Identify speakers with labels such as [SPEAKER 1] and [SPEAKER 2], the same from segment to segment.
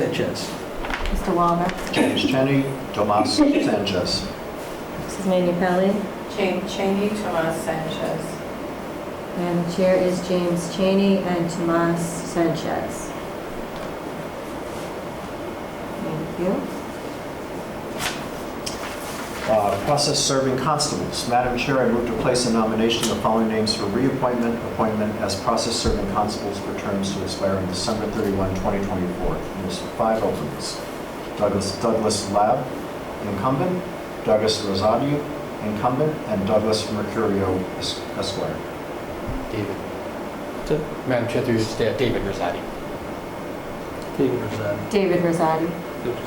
[SPEAKER 1] Sanchez.
[SPEAKER 2] Mr. Walner.
[SPEAKER 3] James Cheney, Tomas Sanchez.
[SPEAKER 2] Mrs. Manu Pelli.
[SPEAKER 4] Jane Cheney, Tomas Sanchez.
[SPEAKER 2] And the chair is James Cheney and Tomas Sanchez. Thank you.
[SPEAKER 3] Uh, Process serving constables. Madam Chair, I move to place a nomination of the following names for reappointment, appointment as process serving constables for terms to expire on December 31, 2024. There's five openings. Douglas, Douglas Lab, incumbent, Douglas Rosadio, incumbent, and Douglas Mercurio Es- Esquire.
[SPEAKER 5] David.
[SPEAKER 1] So-
[SPEAKER 5] Madam Chair, through you, Da- David Rosati.
[SPEAKER 1] David Rosati.
[SPEAKER 2] David Rosati.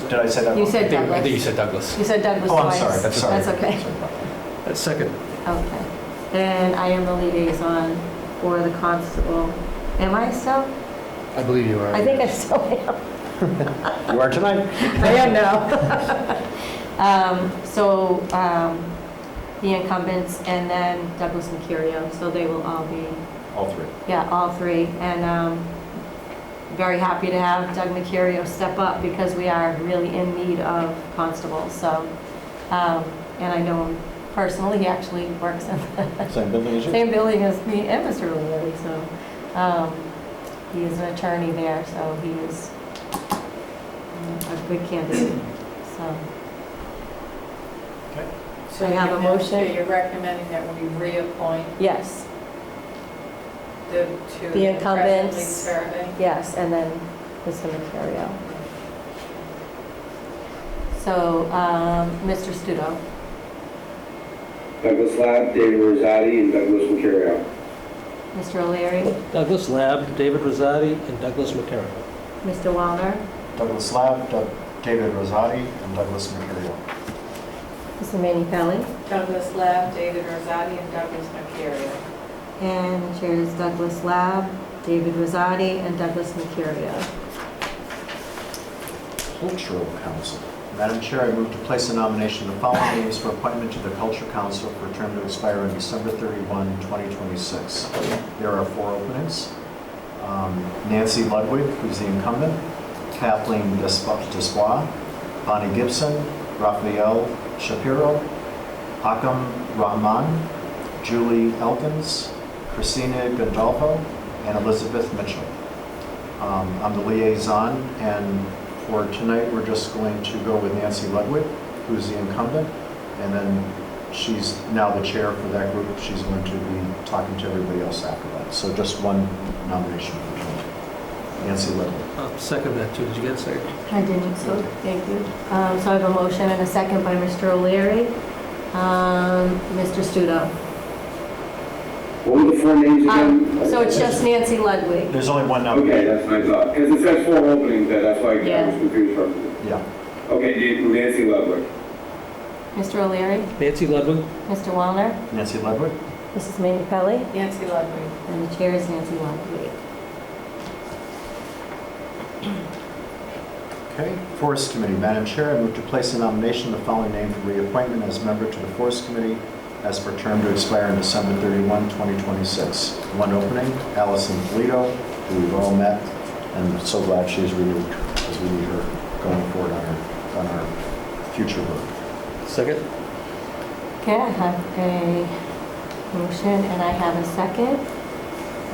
[SPEAKER 3] Did I say that?
[SPEAKER 2] You
[SPEAKER 3] wrong?
[SPEAKER 2] said
[SPEAKER 5] I think you
[SPEAKER 2] Douglas.
[SPEAKER 5] said Douglas.
[SPEAKER 2] You said Douglas
[SPEAKER 3] Oh, I'm
[SPEAKER 2] twice.
[SPEAKER 3] sorry, I'm sorry.
[SPEAKER 2] That's okay.
[SPEAKER 3] Sorry about that.
[SPEAKER 1] Uh, Second.
[SPEAKER 2] Okay. And I am the liaison for the constable. Am I so?
[SPEAKER 5] I believe you are.
[SPEAKER 2] I think I still am.
[SPEAKER 3] You are tonight.
[SPEAKER 2] I am now. So um, the incumbents and then Douglas and Curio, so they will all be,
[SPEAKER 3] All three.
[SPEAKER 2] yeah, all three. And um, very happy to have Doug Mercurio step up because we are really in need of constables, so. um, And I know him personally, he actually works in
[SPEAKER 3] Same building as you?
[SPEAKER 2] same building as me and Mr. O'Leary, so um, he is an attorney there, so he is um, a good candidate, so.
[SPEAKER 4] So
[SPEAKER 2] I have a
[SPEAKER 4] you're now- So
[SPEAKER 2] motion.
[SPEAKER 4] you're recommending that we reappoint
[SPEAKER 2] Yes,
[SPEAKER 4] the two.
[SPEAKER 2] The
[SPEAKER 4] that are presently
[SPEAKER 2] incumbents.
[SPEAKER 4] serving?
[SPEAKER 2] yes, and then Mr. Mercurio. So, um, Mr. Studo,
[SPEAKER 6] Douglas Lab, David Rosati, and Douglas Mercurio.
[SPEAKER 2] Mr. O'Leary,
[SPEAKER 1] Douglas Lab, David Rosati, and Douglas Matera.
[SPEAKER 2] Mr. Walner,
[SPEAKER 3] Douglas Lab, Doug- David Rosati, and Douglas Mercurio.
[SPEAKER 2] Mr. Manu Pelli,
[SPEAKER 4] Douglas Lab, David Rosati, and Douglas Mercurio.
[SPEAKER 2] and the chair is Douglas Lab, David Rosati, and Douglas Mercurio.
[SPEAKER 3] Cultural Council. Madam Chair, I move to place a nomination of the following names for appointment to the Culture Council for a term to expire on December 31, 2026. There are four openings. Um, Nancy Ludwig, who's the incumbent, Kathleen Despo- Despois, Bonnie Gibson, Raphael Shapiro, Akam Rahman, Julie Elkins, Christina Gandolfo, and Elizabeth Mitchell. Um, I'm the liaison, and for tonight, we're just going to go with Nancy Ludwig, who's the incumbent, and then she's now the chair for that group. She's going to be talking to everybody else after that. So just one nomination for tonight. Nancy Ludwig.
[SPEAKER 1] I'll second that too. Did you get a second?
[SPEAKER 2] I didn't, so, thank you. Um, So I have a motion and a second by Mr. O'Leary. Um, Mr. Studo.
[SPEAKER 6] What were the four names
[SPEAKER 2] Um,
[SPEAKER 6] again?
[SPEAKER 2] So it's just Nancy Ludwig.
[SPEAKER 3] There's only one
[SPEAKER 6] Okay,
[SPEAKER 3] nomination.
[SPEAKER 6] that's what I thought, because it says four openings, there, that's why I
[SPEAKER 2] Yeah.
[SPEAKER 6] was confused for a minute.
[SPEAKER 3] Yeah.
[SPEAKER 6] Okay, David- Nancy Ludwig.
[SPEAKER 2] Mr. O'Leary,
[SPEAKER 1] Nancy Ludwig?
[SPEAKER 2] Mr. Wallner,
[SPEAKER 3] Nancy Ludwig?
[SPEAKER 2] Mrs. Manu Pelli,
[SPEAKER 4] Nancy Ludwig.
[SPEAKER 2] and the chair is Nancy Ludwig.
[SPEAKER 3] Okay. Forest Committee. Madam Chair, I move to place a nomination of the following name for reappointment as member to the Forest Committee as per term to expire on December 31, 2026. One opening, Allison Polito, who we've all met, and so glad she's renewed, because we need her going forward on our, on our future work.
[SPEAKER 1] Second.
[SPEAKER 2] Okay, I have a motion and I have a second.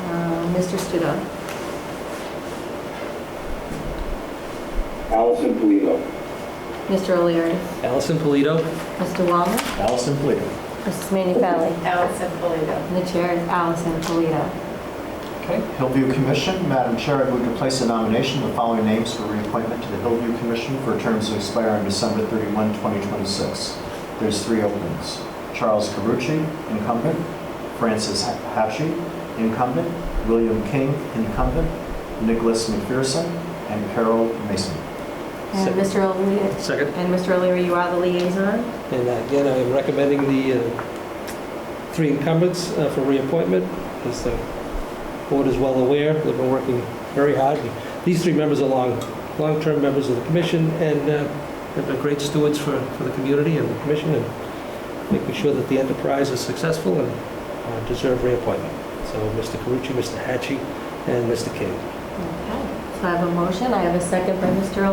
[SPEAKER 2] Um, Mr. Studo.
[SPEAKER 6] Allison Polito.
[SPEAKER 2] Mr. O'Leary,
[SPEAKER 1] Allison Polito?
[SPEAKER 2] Mr. Wallner,
[SPEAKER 3] Allison Polito.
[SPEAKER 2] Mrs. Manu Pelli,
[SPEAKER 4] Allison Polito.
[SPEAKER 2] and the chair is Allison Polito.
[SPEAKER 3] Okay, Hillview Commission, Madam Chair, I move to place a nomination of the following names for reappointment to the Hillview Commission for terms to expire on December 31, 2026. There's three openings. Charles Carucci, incumbent, Francis Hatchie, incumbent, William King, incumbent, Nicholas McPherson, and Carol Mason.
[SPEAKER 2] And
[SPEAKER 1] Second.
[SPEAKER 2] Mr. O'Leary,
[SPEAKER 1] Second.
[SPEAKER 2] and Mr. O'Leary, you are the liaison?
[SPEAKER 1] And again, I am recommending the uh, three incumbents uh, for reappointment. As the board is well aware, they've been working very hard. These three members are long, long-term members of the commission and uh, have been great stewards for, for the community and the commission and making sure that the enterprise is successful and uh, deserve reappointment. So Mr. Carucci, Mr. Hatchie, and Mr. King.
[SPEAKER 2] Okay. So I have a motion, I have a second by Mr.